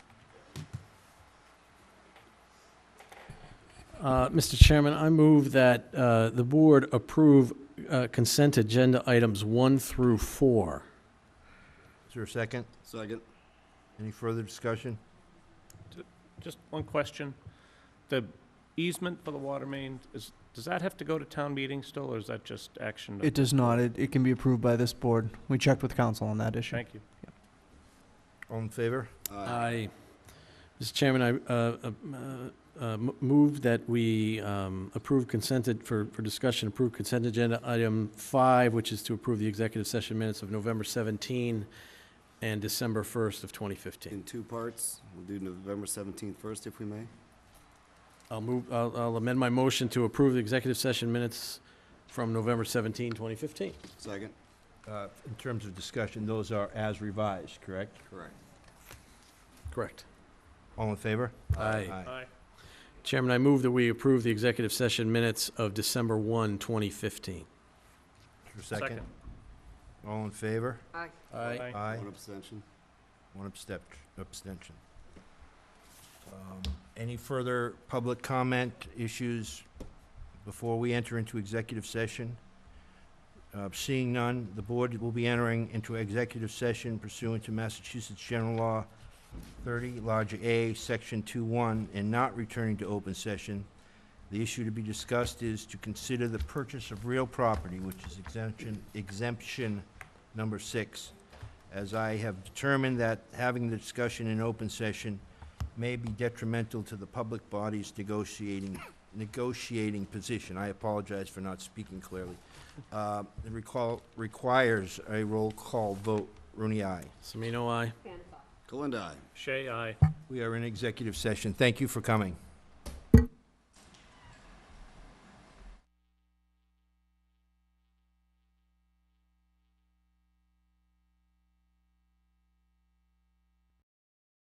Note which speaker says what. Speaker 1: Uh, Mr. Chairman, I move that uh, the board approve uh, consent agenda items one through four.
Speaker 2: Is there a second?
Speaker 3: Second.
Speaker 2: Any further discussion?
Speaker 4: Just one question. The easement for the water main, is, does that have to go to town meeting still, or is that just action? to-
Speaker 5: It does not. It, it can be approved by this board. We checked with council on that issue.
Speaker 4: Thank you.
Speaker 2: All in favor?
Speaker 1: I, Mr. Chairman, I uh, uh, uh, m- move that we um, approve consented, for, for discussion, approve consent agenda item five, which is to approve the executive session minutes of November 17 and December 1st of 2015.
Speaker 3: In two parts. We'll do November 17th first, if we may.
Speaker 1: I'll move, I'll I'll amend my motion to approve the executive session minutes from November 17, 2015.
Speaker 3: Second.
Speaker 2: Uh, In terms of discussion, those are as revised, correct?
Speaker 3: Correct.
Speaker 1: Correct.
Speaker 2: All in favor?
Speaker 1: Aye.
Speaker 4: Aye.
Speaker 1: Chairman, I move that we approve the executive session minutes of December 1, 2015.
Speaker 2: Is there a second? All in favor?
Speaker 4: Aye.
Speaker 2: Aye.
Speaker 3: One abstention.
Speaker 2: One abstep- abstention. Um, Any further public comment issues before we enter into executive session? Uh, Seeing none, the board will be entering into executive session pursuant to Massachusetts General Law 30, Lodge A, Section 2-1, and not returning to open session. The issue to be discussed is to consider the purchase of real property, which is exemption, exemption number six, as I have determined that having the discussion in open session may be detrimental to the public body's negotiating, negotiating position. I apologize for not speaking clearly. Uh, It recall- requires a roll call vote. Rooney, aye.
Speaker 1: Semino, aye.
Speaker 3: Kalendai.
Speaker 4: Shay, aye.
Speaker 2: We are in executive session. Thank you for coming.